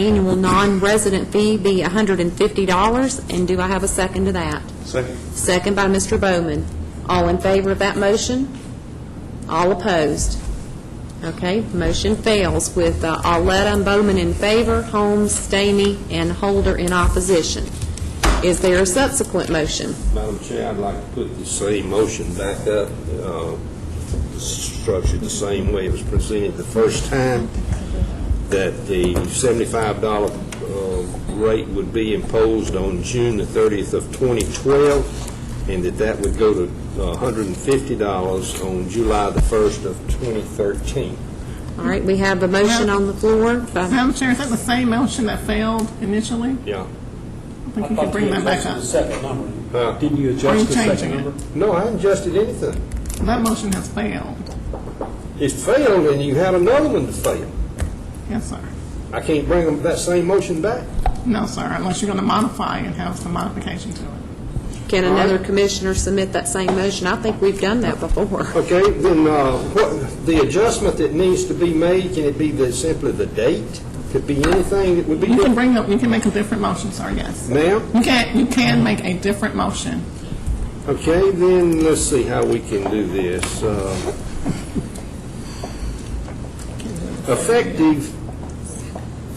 Annual non-resident fee be $150, and do I have a second to that? Second. Second by Mr. Bowman. All in favor of that motion? All opposed? Okay, motion fails with uh, Arletta and Bowman in favor, Holmes, Stamey, and Holder in opposition. Is there a subsequent motion? Madam Chair, I'd like to put the same motion back up, uh, structured the same way it was presented the first time, that the $75 uh, rate would be imposed on June the 30th of 2012, and that that would go to uh, $150 on July the 1st of 2013. All right, we have a motion on the floor. by- Madam Chair, is that the same motion that failed initially? Yeah. I think you can bring that back up. Second Huh? number. Didn't you Are you adjust the second changing it? number? No, I haven't adjusted anything. That motion has failed. It failed, and you had another one to fail. Yes, sir. I can't bring them- that same motion back? No, sir, unless you're going to modify and have some modification to it. Can another commissioner submit that same motion? I think we've done that before. Okay, then, uh, what, the adjustment that needs to be made, can it be the, simply the date? Could be anything that would be You can different? bring up, you can make a different motion, sir, yes. Ma'am? You can, you can make a different motion. Okay, then, let's see how we can do this. Uh, Effective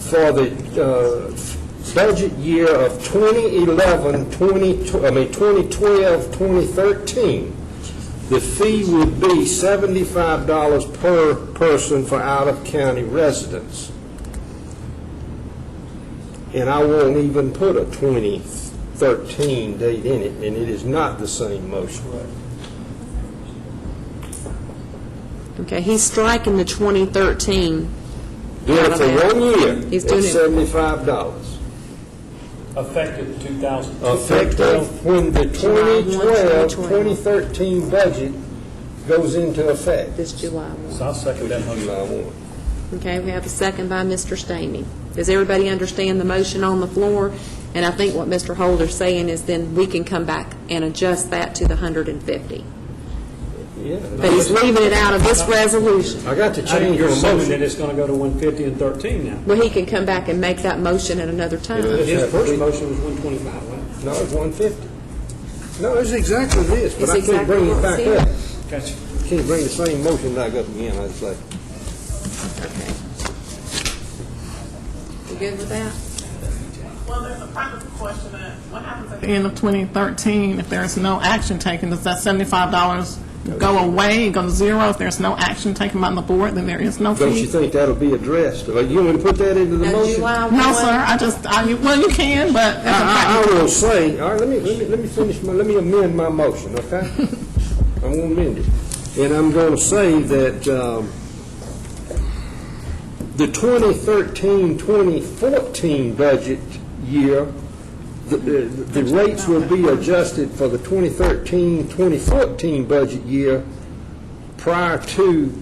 for the uh, budget year of 2011, 20, I mean, 2012, 2013, the fee would be $75 per person for out-of-county residents. And I won't even put a 2013 date in it, and it is not the same motion. Okay, he's striking the 2013. Do it for Okay. one year, uh, He's it's doing it- $75. Effective 2000. effective when the July 1, 2012, 2012. 2013 budget goes into effect. This July 1. So I'll second that motion. July 1. Okay, we have a second by Mr. Stamey. Does everybody understand the motion on the floor? And I think what Mr. Holder's saying is then we can come back and adjust that to the 150. But he's Yeah. leaving it out of this resolution. I got to I think change you're your assuming that motion. it's going to go to 150 and 13 now. Well, he can come back and make that motion at another time. Yeah. His that- first motion was 125, wasn't it? No, it's 150. No, it's exactly this, but It's I can't bring it back exactly what up. it's Gotcha. Can't bring the same motion back up again, I'd say. You good with that? Well, there's a practical question that, what happens At the end of 2013, if there is no action taken, does that $75 go away, go to zero? If there's no action taken by the board, then there is no Don't you fee? think that'll be addressed? Like, You want me to put that into the Now, motion? I July 1. No, sir, I just, I, well, you can, but as a practical I I will say, all right, let me, let me, let me finish my, let me amend my motion, okay? I'm gonna amend it. And I'm gonna say that, um, the 2013, 2014 budget year, the, the the rates will be adjusted for the 2013, 2014 budget year prior to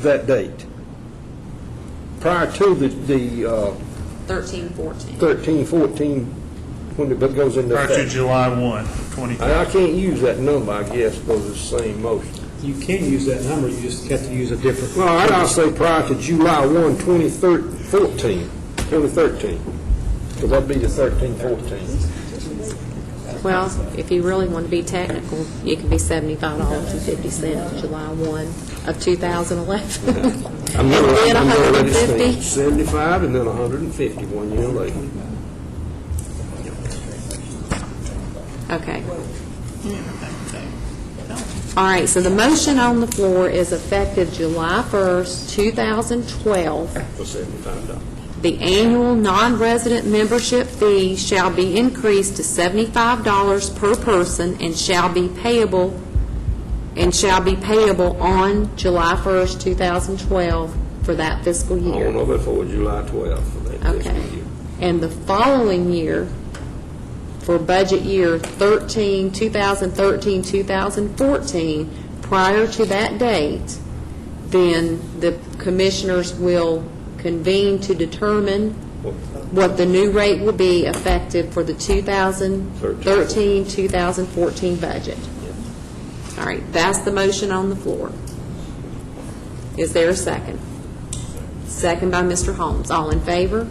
that date, prior to the, the uh, 13, 14. 13, 14, when it goes into Prior to effect. July 1, 2013. I I can't use that number, I guess, because it's the same motion. You can use that number, you just have to use a different. Well, I'd also say prior to July 1, 2013, 2013, because that'd be the 13, 14. Well, if you really want to be technical, you can be $75.50, July 1 of 2011. I'm gonna- And then I'm gonna let it stand. 150. 75 and then 150, one year later. Okay. All right, so the motion on the floor is effective July 1st, 2012. For $75. The annual non-resident membership fee shall be increased to $75 per person and shall be payable, and shall be payable on July 1st, 2012 for that fiscal I don't year. know before July 12 for that fiscal Okay. year. And the following year, for budget year 13, 2013, 2014, prior to that date, then the commissioners will convene to determine what the new rate will be effective for the 2013, 2014 budget. All right, that's the motion on the floor. Is there a second? Second by Mr. Holmes. All in favor?